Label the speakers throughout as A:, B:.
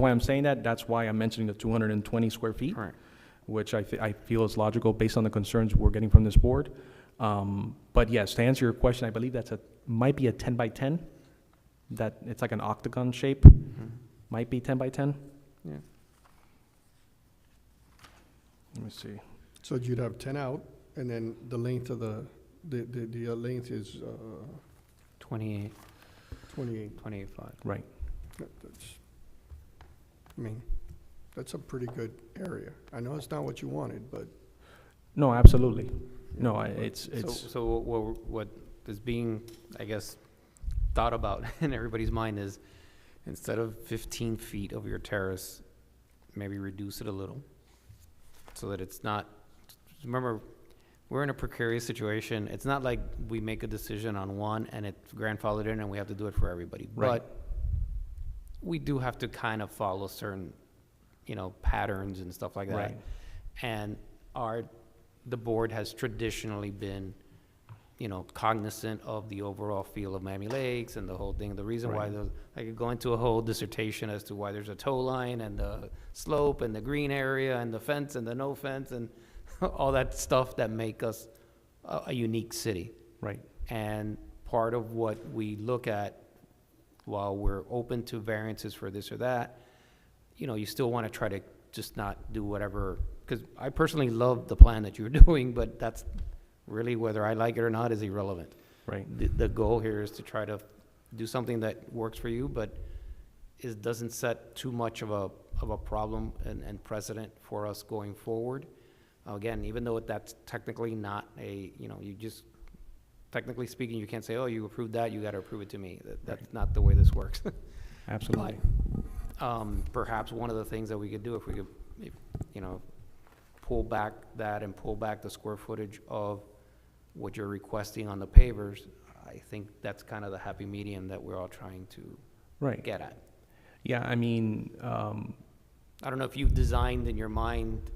A: Why I'm saying that, that's why I'm mentioning the 220 square feet,
B: Correct.
A: which I, thi- I feel is logical based on the concerns we're getting from this board. Um, But yes, to answer your question, I believe that's a, might be a 10 by 10, that, it's like an octagon shape,
B: Mhm.
A: might be 10 by 10.
B: Yeah.
A: Let me see.
C: So you'd have ten out, and then the length of the, the, the, the uh, length is, uh,
B: 28,
C: twenty-eight.
B: 28.5.
A: Right.
C: That- that's- I mean, that's a pretty good area. I know it's not what you wanted, but.
A: No, absolutely. No, I- it's,
B: So,
A: it's,
B: so what, we're- what is being, I guess, thought about in everybody's mind is, instead of fifteen feet of your terrace, maybe reduce it a little, so that it's not, remember, we're in a precarious situation, it's not like we make a decision on one and it's grandfathered in and we have to do it for everybody,
A: Right.
B: but we do have to kind of follow certain, you know, patterns and stuff like that.
A: Right.
B: And our, the board has traditionally been, you know, cognizant of the overall feel of Miami Lakes and the whole thing. The reason why
A: Right.
B: those, I could go into a whole dissertation as to why there's a tow line and the slope and the green area and the fence and the no fence and all that stuff that make us a, a unique city.
A: right,
B: And part of what we look at, while we're open to variances for this or that, you know, you still want to try to just not do whatever, because I personally love the plan that you're doing, but that's really, whether I like it or not, is irrelevant.
A: right,
B: The, the goal here is to try to do something that works for you, but is, doesn't set too much of a, of a problem and, and precedent for us going forward. Again, even though that's technically not a, you know, you just, technically speaking, you can't say, oh, you approved that, you gotta approve it to me. That, that's not the way this works.
A: absolutely.
B: Um, perhaps one of the things that we could do, if we could, if, you know, pull back that and pull back the square footage of what you're requesting on the pavers, I think that's kind of the happy medium that we're all trying to
A: Right.
B: get at.
A: Yeah, I mean, um,
B: I don't know if you've designed in your mind,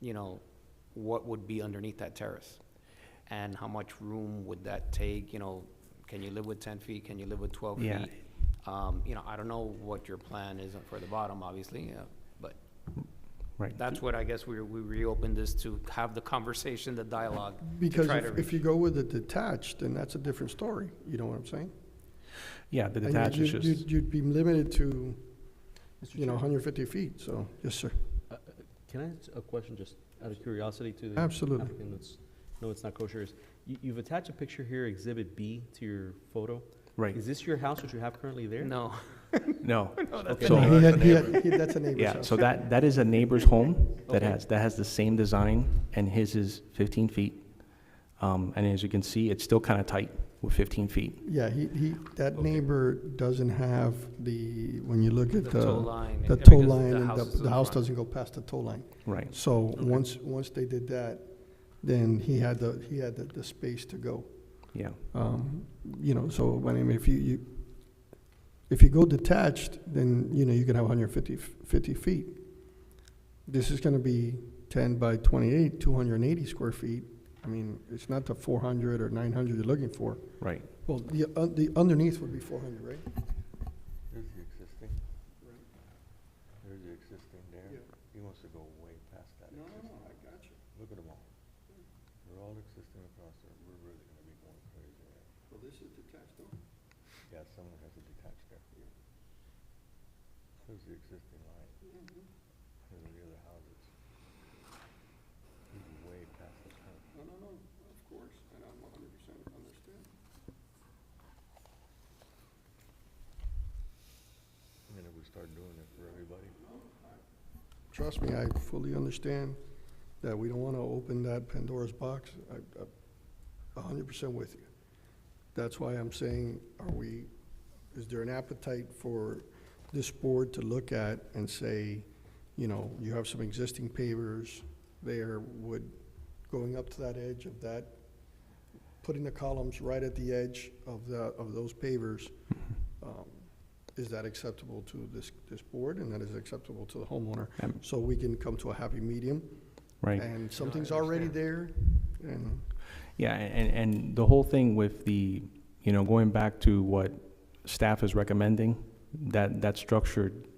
B: you know, what would be underneath that terrace? And how much room would that take, you know, can you live with ten feet, can you live with twelve feet?
A: Yeah.
B: Um, you know, I don't know what your plan is for the bottom, obviously, uh, but
A: right,
B: that's what I guess we, we reopened this to have the conversation, the dialogue. to
C: Because
B: try to
C: if,
B: reach-
C: if you go with the detached, then that's a different story, you know what I'm saying?
A: yeah, the
C: And you'd-
A: detached is
C: you'd-
A: just.
C: You'd, you'd be limited to,
D: Mr.
C: you know,
D: Chair,
C: hundred fifty feet, so, yes, sir,
D: uh, uh, Can I ask a question, just out of curiosity to the
C: absolutely.
D: applicant that's, no, it's not kosher, is, you, you've attached a picture here, Exhibit B, to your photo.
A: Right,
D: Is this your house that you have currently there?
B: No,
A: no.
D: Okay.
A: So-
C: No, he had- he had- he- That's a neighbor's
A: Yeah,
C: house.
A: so that, that is a neighbor's home that
D: Okay.
A: has, that has the same design, and his is 15 feet. Um, And as you can see, it's still kind of tight with 15 feet.
C: Yeah, he, he, that neighbor doesn't have the, when you look
B: The
C: at
B: tow
C: the,
B: line,
C: the
B: and-
C: tow
B: because
C: line, and the,
B: is to
C: the house
B: front.
C: doesn't go past the tow line.
A: Right,
C: So once, once they did that, then he had the, he had the, the space to go.
A: yeah,
C: Um, You know, so, I mean, if you, you, if you go detached, then, you know, you can have 150 f- 50 feet. This is gonna be ten by twenty-eight, two hundred and eighty square feet. I mean, it's not the four hundred or nine hundred you're looking for.
A: right.
C: Well, the, un- the underneath would be four hundred, right?
E: There's the existing. There's the existing there. He wants to go way past that existing.
C: I got you.
E: Look at them all. They're all existing across there. We're really gonna be going crazy. there.
C: Well, this is detached
E: Yeah, someone has to detach there. There's the existing line.
C: Mm-hmm.
E: There's the other houses. He's way past the curb.
C: No, no, no, of course, and I'm a hundred percent understand.
E: I mean, if we start doing it for everybody,
C: Trust me, I fully understand that we don't want to open that Pandora's box. I, I'm a hundred percent with you. That's why I'm saying, are we, is there an appetite for this board to look at and say, you know, you have some existing pavers there, would going up to that edge of that, putting the columns right at the edge of the, of those pavers, um, is that acceptable to this, this board and that is acceptable to the homeowner?
A: Um,
C: so we can come to a happy medium.
A: Right,
C: And something's already there, and
A: yeah, and, and the whole thing with the, you know, going back to what staff is recommending, that, that structure